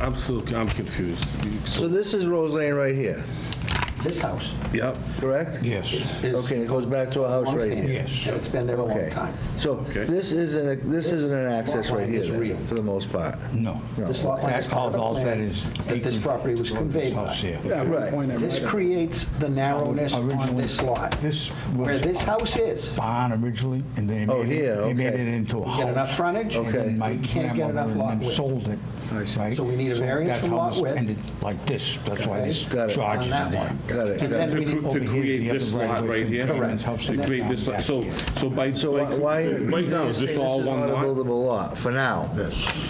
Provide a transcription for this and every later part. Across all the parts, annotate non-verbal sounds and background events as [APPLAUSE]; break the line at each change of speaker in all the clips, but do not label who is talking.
I'm still, I'm confused.
So this is Rose Lane right here,
This house,
Yep,
correct?
Yes,
is-
Okay, it goes back to our house right
Long-standing.
here.
yes.
it's been there a long
Okay,
time.
so
Okay.
this isn't, a- this isn't an access right here,
This lot line is
then,
real.
for the most part.
No.
This lot line is
That- all-
part of
all
the
that
plan
is
that this
acreage
property was
of this
conveyed by.
house here.
Yeah, I would
Right.
point that
This
right out.
creates the narrowness on
Originally,
this lot.
this
Where
was-
this house is,
Barn originally, and they
Oh,
made
here,
it, they made
okay.
it into a house.
get enough frontage?
And
Okay.
then my
We can't get
grandmother
enough
and
lot
them
width.
sold it, right?
So we need a
So
variance
that's
from
how
lot
this
width.
ended, Like this, that's why this
Got it.
charge is
On
in
that
there.
one.
Got it,
And
got
then
it.
to
we
cr-
need,
to
Over here,
create
the
this
other
lot
right-of-way
right
from
here.
Cameron's house
To
and
create
that
this, lot.
back
so,
here.
so by,
So why-
by-
why?
right now, is this all one
This is
lot?
not a buildable lot, for now.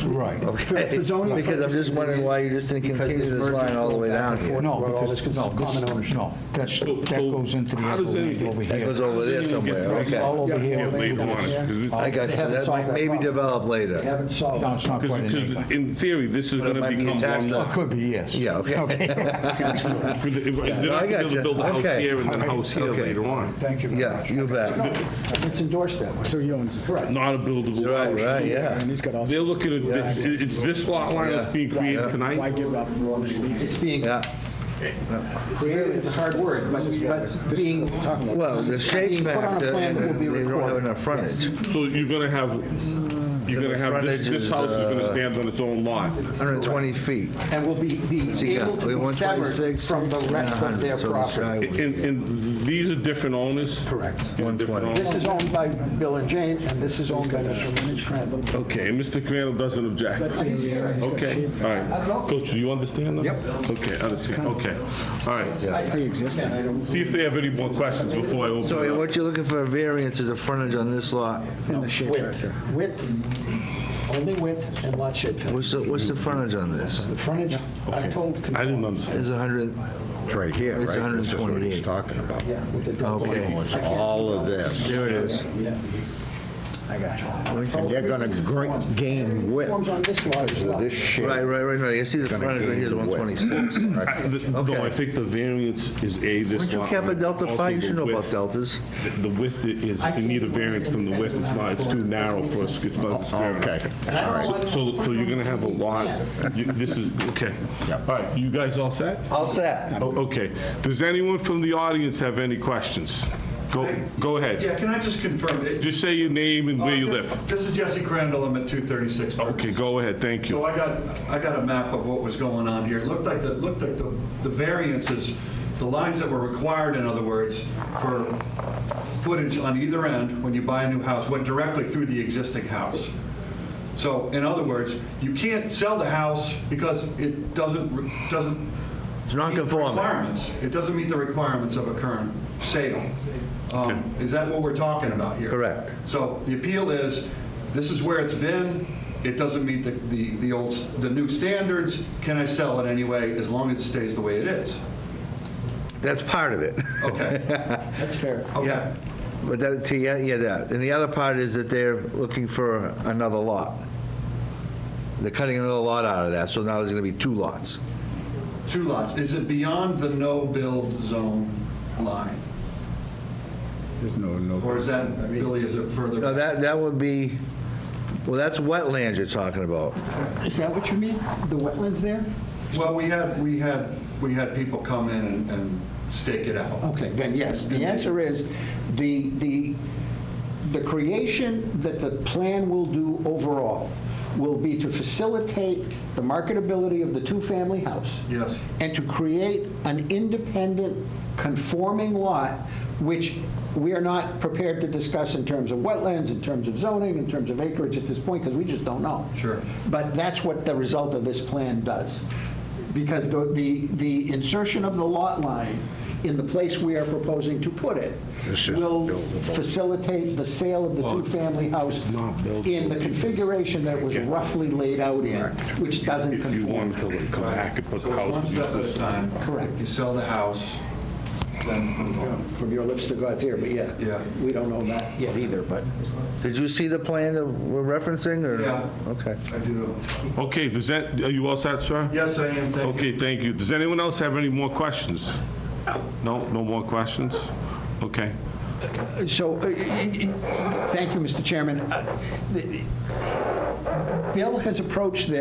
Right.
Okay.
For zoning
Because I'm just
purposes, it
wondering
is,
why you just didn't
because
continue
there's
this line
mergers
all the way
going back
down
and
here.
forth.
No,
Where all
because,
this
no,
common
this,
ownership.
no, that's,
So-
that
so
goes into the
how
other
does
one
any-
over
that
here.
goes over there
It's
somewhere, okay.
All over
Yeah,
here.
later on, it's- 'cause this-
I got you,
They haven't
that
solved
might
that
maybe
problem.
develop
They
later.
haven't solved.
No, it's not quite
Because
an acre.
because in theory, this is
But it
gonna
might be
become
attached
one
to-
It
lot.
could be, yes.
Yeah, okay.
They're
I
not gonna be able
gotcha.
to build a house
Okay.
here and then a house here
Okay.
later on.
Thank you
[LAUGHS]
very
Yeah,
much.
you bet.
It's endorsed that way.
So he owns it. Right.
Not a buildable
Right,
lot.
right, yeah.
And he's got all.
They're looking at,
Yeah.
it's this lot line that's being created
Why
tonight?
give up?
It's being,
Yeah,
created is a hard word, but, but being.
well, the shape
Being put on a
factor, and
plan that will be
they don't have
recorded.
enough frontage.
So you're gonna have, you're
The
gonna have, this,
frontage
this
is,
house is gonna
uh,
stand on its own lot.
120 feet.
And will be, be
So you got
able to be severed
126,
from the rest of
100, so
their
it's
property.
shy.
And, and these are different owners?
Correct.
These are different
120.
This
owners?
is owned by Bill and Jane, and this is owned by Mr. Scranton.
Okay, and Mr. Crandall doesn't object? Okay, all right. Coach, do you understand that? Yep. Okay, I understand, okay. All right.
Pre-existing.
See if they have any more questions before I open
So
it up.
what you're looking for a variance is a frontage on this lot.
In the shape factor.
Width, width, only width and lot shape fill.
What's the, what's the frontage on this?
The frontage, I'm told,
I
conform-
didn't understand.
Is 100,
It's right here, right?
It's
This is what
128.
he's talking about.
yeah, with the double.
Okay.
It's all of this.
there it is.
Yeah. I got you.
And they're going to gain width
Forms on this lot as
because
well.
of this shape.
Right, right, right, right. I see the
Gonna
frontage right here is
gain the width.
126.
I- the- No, I think the variance is A, this
Weren't you
lot
cap a
line,
delta
also
five? You
the
should know about
width.
deltas.
The width i- is, you need a variance from the width, it's not, it's too narrow for a, squ- it's
Oh,
not square enough.
Okay.
So, so you're gonna have a lot, you- this is, okay. All right, you guys all set?
All set.
O- Okay, does anyone from the audience have any questions? Go, go ahead,
Yeah, Uh, can I just confirm? it-
just say your name and where you live.
This is Jesse Crandall, I'm at 236 Burke.
Okay, go ahead, thank you.
So I got, I got a map of what was going on here. It looked like, the looked like the the variances, the lines that were required, in other words, for footage on either end when you buy a new house went directly through the existing house. So in other words, you can't sell the house because it doesn't, re- doesn't.
It's
meet the
non-conforming.
Requirements. It doesn't meet the requirements of a current sale. Um,
Okay.
Is that what we're talking about here?
Correct.
So the appeal is, this is where it's been, it doesn't meet the, the, the old, the new standards, can I sell it anyway, as long as it stays the way it is?
That's part of it. [LAUGHS]
Okay,
That's fair.
okay.
But that, to- yeah, yeah, that. And the other part is that they're looking for another lot. They're cutting another lot out of that, so now there's going to be two lots.
Two lots, is it beyond the no-build zone line?
There's no, no.
Or is that, really, is it further?
Now,
back?
that, that would be, well, that's wetlands you're talking about.
Is that what you mean? The wetlands there?
Well, we had, we had, we had people come in and- and stake it out.
Okay, then yes, the answer is, the, the, the creation that the plan will do overall will be to facilitate the marketability of the two-family house.
Yes.
And to create an independent conforming lot, which we are not prepared to discuss in terms of wetlands, in terms of zoning, in terms of acreage at this point, because we just don't know.
Sure.
But that's what the result of this plan does. Because the, the the insertion of the lot line in the place we are proposing to put it will facilitate the sale of the two-family house in the configuration that was roughly laid out in, which doesn't
If you
conform.
want to come back and put
So
the
it's
house.
one
and use
step at
this
a time.
Correct.
You sell the house, then move on.
From your lips to God's ear, but yeah.
Yeah.
We don't know that yet either, but.
Did you see the plan that we're referencing, or?
Yeah.
Okay.
I do.
Okay, does that, are you all set, sir?
Yes, I am, thank you.
Okay, thank you. Does anyone else have any more questions? No, no more questions? Okay.
So, uh, thank you, Mr. Chairman. Uh, the- Bill has approached this.